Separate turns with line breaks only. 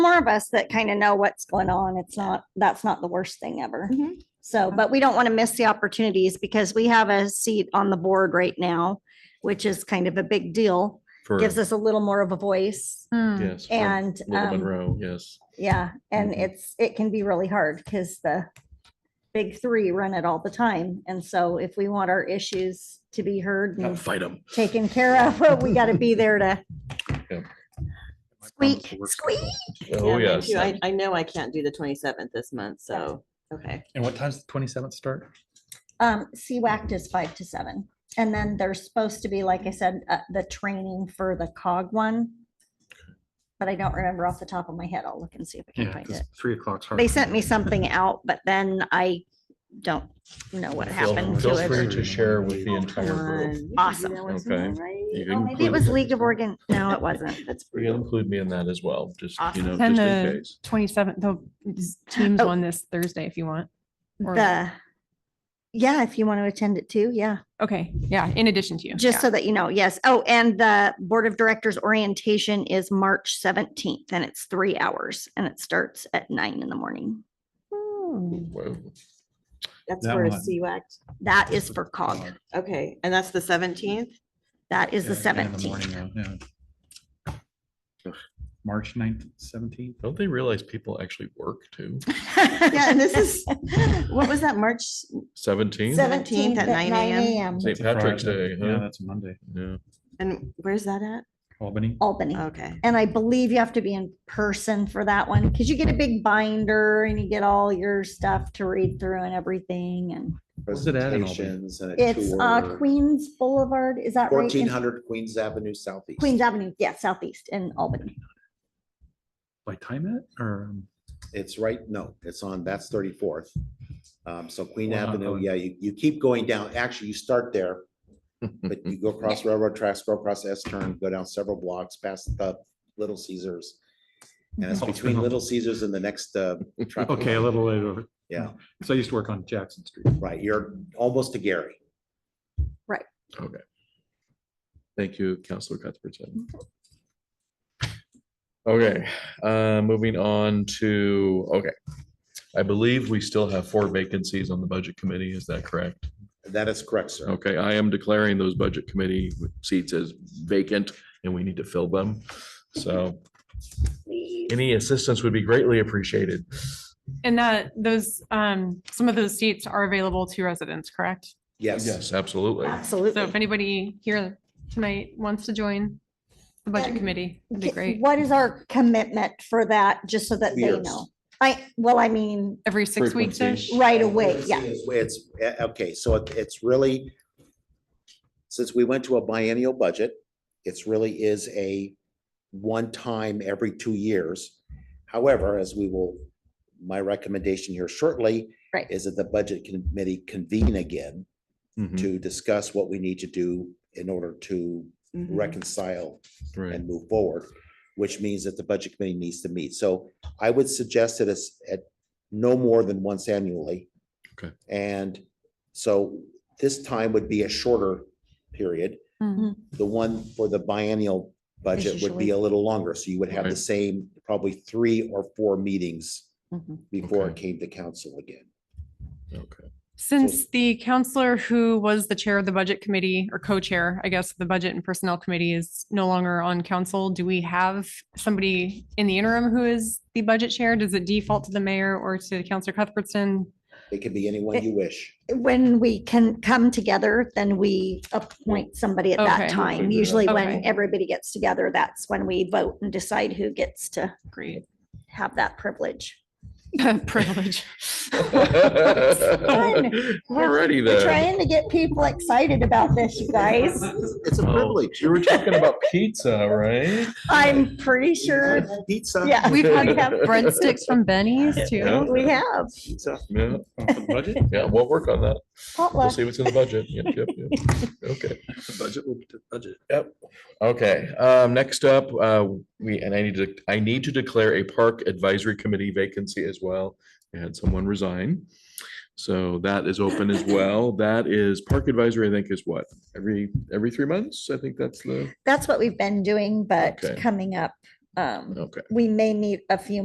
more of us that kind of know what's going on. It's not, that's not the worst thing ever.
Mhm.
So, but we don't want to miss the opportunities because we have a seat on the board right now, which is kind of a big deal.
For,
Gives us a little more of a voice
yes.
Mm,
for
and,
Little
um,
Monroe, yes.
yeah, and
Mhm.
it's, it can be really hard because the big three run it all the time. And so if we want our issues to be heard
Gotta
Mm.
and
Fight them.
taken care of, we got to be there to squeak, squeak.
Oh,
Yeah,
yes.
thank you. I, I know I can't do the twenty-seventh this month, so, okay.
And what time's the twenty-seventh start?
Um, CWACT is five to seven. And then there's supposed to be, like I said, uh, the training for the cog one. But I don't remember off the top of my head. I'll look and see if I can
Yeah,
find it.
because three o'clock's hard.
They sent me something out, but then I don't know what
Feel-
happened to
Feel free
it.
to share with the
One. You
entire group.
can do
Awesome.
that once in a
Okay.
while, right?
You
Oh,
can
Maybe it
include-
was League of Oregon. No, it wasn't. That's
You can include me in that as well, just, you
Awesome.
know,
Send
just in
the-
case.
Twenty-seventh, the is teams
Oh.
on this Thursday if you want. or-
the, yeah, if you want to attend it too, yeah.
Okay, yeah, in addition to you.
Just so that you know, yes. Oh, and the Board of Directors orientation is March seventeenth and it's three hours and it starts at nine in the morning.
Whoa.
That's
That
for a
one.
CWAC.
That is for cog.
Okay, and that's the seventeenth?
That is the
Yeah, in the
seventeenth.
morning, yeah, yeah. March 9th, seventeenth.
Don't they realize people actually work too?
Yeah, and this is, what was that, March?
Seventeen?
Seven- 17th at 9 a.m..
St. Patrick's Day,
Yeah,
huh?
that's a Monday,
Yeah.
And where's that at?
Albany.
Albany.
Okay.
And I believe you have to be in person for that one because you get a big binder and you get all your stuff to read through and everything. And
What's it at in Albany?
presentations and a
it's uh
tour.
Queens Boulevard, is that right?
Fourteen
in-
hundred Queens Avenue Southeast.
Queens Avenue, yeah, southeast in Albany.
By time it or? um,
It's right, no, it's on, that's thirty-fourth. Um, so Queen
We're not
Avenue,
going.
yeah, you, you keep going down. Actually, you start there, but you go across railroad tracks, go across S turn, go down several blocks past the Little Caesars. And it's
Mhm.
between Little Caesars and the next, uh,
Oh.
traffic
Okay, a
light.
little later. over.
Yeah.
So I used to work on Jackson Street.
Right, you're almost to Gary.
Okay. Thank you, Counselor Cuthbertson. Okay, uh, moving on to, okay. I believe we still have four vacancies on the budget committee. Is that correct?
That is correct, sir.
Okay, I am declaring those budget committee seats as vacant and we need to fill them. So any assistance would be greatly appreciated.
And that, those, um, some of those seats are available to residents, correct?
Yes,
Yes, absolutely.
So if
Absolutely.
anybody here tonight wants to join the budget
And
committee, that'd be
K-
great.
What is our commitment for that, just so that they
Years.
know? I, well, I mean,
Every six weeks ish?
Frequency.
right away, yeah.
It's- It's, eh, okay, so it- it's really, since we went to a biennial budget, it's really is a one-time every two years. However, as we will, my recommendation here shortly
Right.
is that the budget committee convene again
Mhm,
to discuss what we need to do in order to
Mm-hmm.
Mhm.
reconcile
Right.
and move forward, which means that the budget committee needs to meet. So I would suggest that it's at no more than once annually.
Okay.
And so this time would be a shorter period.
Mm-hmm.
Mhm.
The one for the biennial budget would be a little longer, so you would have the
Right.
same, probably three or four meetings
Mm-hmm.
Mhm.
before it
Okay.
came to council again.
Okay.
Since the counselor who was the chair of the budget committee or co-chair, I guess, of the budget and personnel committee is no longer on council, do we have somebody in the interim who is the budget chair? Does it default to the mayor or to Counselor Cuthbertson?
It could be anyone you wish.
When we can come together, then we appoint somebody at that
Okay.
time. Usually when
Okay.
everybody gets together, that's when we vote and decide who gets to
Great
have that privilege.
privilege.
Alrighty
We're
then.
trying to get people excited about this, you guys.
It's a
Oh,
privilege.
You were talking about pizza, right?
I'm pretty sure,
Pizza.
yeah.
We've had breadsticks from Benny's
Yeah.
too.
We have
Pizza.
Yeah,
Budget?
yeah, we'll work on that. We'll
potluck.
see what's in the budget. Yep, yep, yep. Okay.
Budget, will be the budget.
Yep. Okay, um, next up, uh, we, and I need to, I need to declare a park advisory committee vacancy as well. We had someone resign. So that is open as well. That is park advisory, I think is what, every, every three months? I think that's the,
That's what we've been doing, but
Okay.
coming up, Um,
Okay.
we may need a few